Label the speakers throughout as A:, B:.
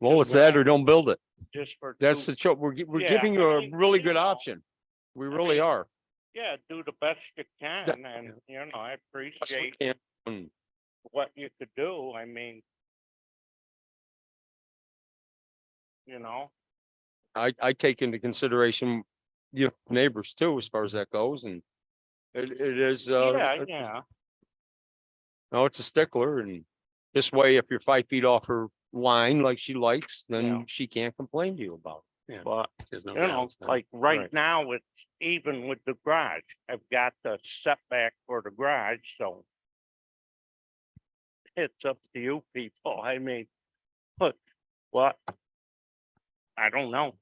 A: Well, it's that or don't build it.
B: just for.
A: That's
B: do-
A: the cho, we're, gi- we're
B: Yeah,
A: giving
B: I
A: you a
B: mean,
A: really
B: you
A: good
B: know,
A: option. We
B: I
A: really
B: mean,
A: are.
B: Yeah, do the best you can and, you know, I appreciate
A: Yeah.
B: what you could do. I mean. You know,
A: I, I take into consideration, you know, neighbors too, as far as that goes and it, it is,
B: yeah,
A: uh,
B: yeah,
A: no, it's a stickler and this way, if you're five feet off her line like she likes,
B: Yeah.
A: then she can't complain to you about it.
C: Yeah.
A: But,
C: There's no
B: you know,
C: downs.
B: like right now, it's even with the garage. I've got the setback for the garage, so. It's up to you people. I mean, look, what? I don't know.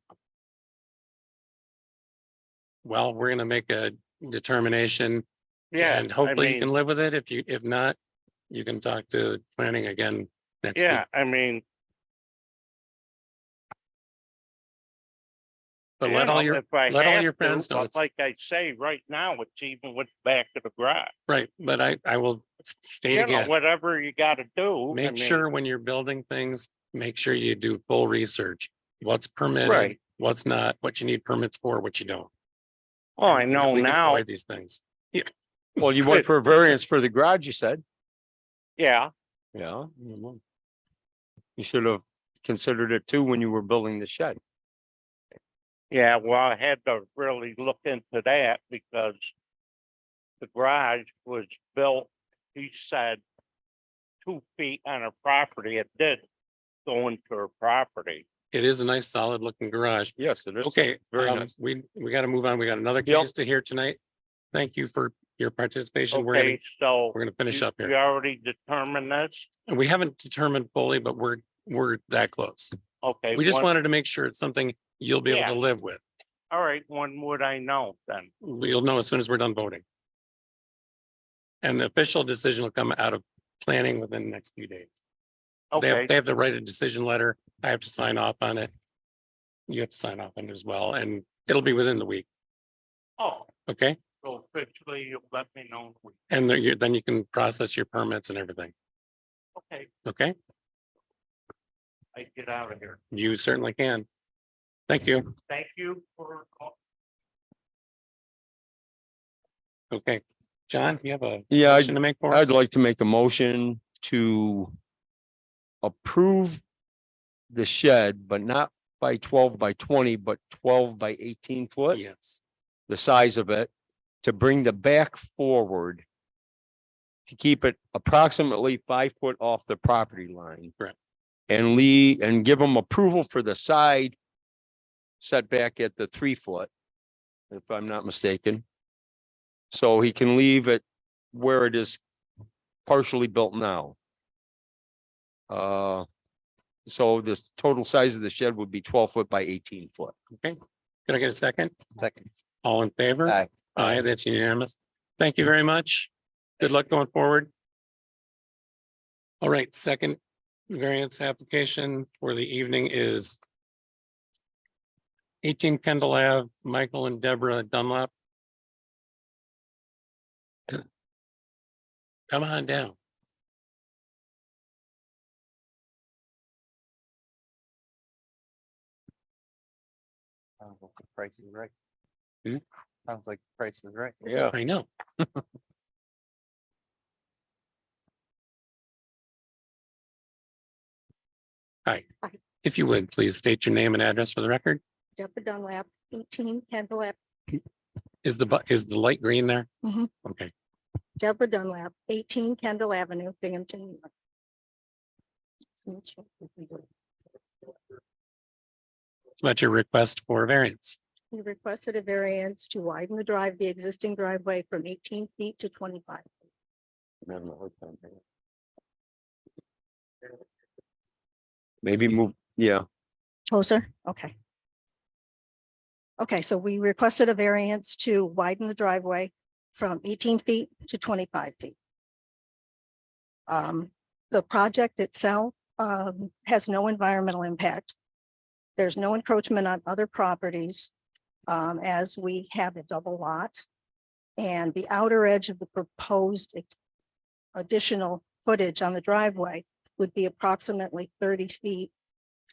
C: Well, we're gonna make a determination
B: Yeah.
C: and
B: I
C: hopefully you
B: mean-
C: can live with it. If you, if not, you can talk to planning again next week.
B: Yeah, I mean.
C: But
B: you
C: let all
B: know,
C: your,
B: if I
C: let all
B: have
C: your
B: to,
C: friends know
B: but
C: it's-
B: Like I say, right now, it's even with back to the garage,
C: right, but I, I will s- state
B: you know,
C: again,
B: whatever you gotta do. I
C: make
B: mean,
C: sure when you're building things, make sure you do full research. What's permitted,
B: Right.
C: what's not, what you need permits for, what you don't.
B: Oh, I
C: and
B: know
C: we can
B: now,
C: avoid These things.
A: well, you went for a variance for the garage, you said.
B: yeah,
A: Yeah. You should have considered it too when you were building the shed.
B: yeah, well, I had to really look into that because. The garage was built, he said. Two feet on a property, it did go into a property,
C: It is a nice solid looking garage.
A: Yes, it is.
C: Okay,
A: Very
C: um,
A: nice.
C: we, we gotta move on. We got another
A: Yep.
C: case to hear tonight. Thank you for your participation. We're gonna,
B: okay, so.
C: we're gonna finish
B: you-
C: up here.
B: You already determined this,
C: And we haven't determined fully, but we're, we're that close.
B: okay.
C: We just
B: one-
C: wanted to make sure it's something you'll be
B: Yeah.
C: able to live with.
B: All right, when would I know then?
C: You'll know as soon as we're done voting. And the official decision will come out of planning within the next few days. They
B: Okay,
C: have, they have to write a decision letter. I have to sign off on it. You have to sign off on it as well, and it'll be within the week,
B: oh,
C: okay?
B: so officially you'll let me know.
C: And then you, then you can process your permits and everything,
B: Okay,
C: okay?
B: I get out of here.
C: You certainly can. Thank you.
B: Thank you for. all-
C: Okay. John, do you have a
A: Yeah, I,
C: motion to make for us?
A: I'd like to make a motion to approve the shed, but not by twelve by twenty, but twelve by eighteen foot,
C: Yes.
A: the size of it, to bring the back forward to keep it approximately five foot off the property line.
C: Correct.
A: And Lee, and give them approval for the side setback at the three foot, if I'm not mistaken. So he can leave it where it is partially built now. Uh, so this total size of the shed would be twelve foot by eighteen foot.
C: Can I get a second?
A: Second.
C: All in favor?
A: Aye.
C: Aye, that's unanimous. Thank you very much. Good luck going forward. All right, second variance application for the evening is eighteen Kendall Ave, Michael and Deborah Dunlop. Come on down.
D: Sounds like the price is right.
C: Hmm?
D: Sounds like the price is right.
A: Yeah.
C: I know. Hi, if you would, please state your name and address for the record.
E: Deborah Dunlap, eighteen Kendall Ave,
C: Is the, bu- is the light green there?
E: Mhm.
C: Okay,
E: Deborah Dunlap, eighteen Kendall Avenue, Binghamton. New York. Nice to meet you.
C: it's about your request for a variance.
E: You requested a variance to widen the drive, the existing driveway from eighteen feet to twenty-five.
A: Maybe move, yeah,
E: Closer, okay. Okay, so we requested a variance to widen the driveway from eighteen feet to twenty-five feet. Um, the project itself, um, has no environmental impact. There's no encroachment on other properties, um, as we have a double lot. And the outer edge of the proposed ex- additional footage on the driveway would be approximately thirty feet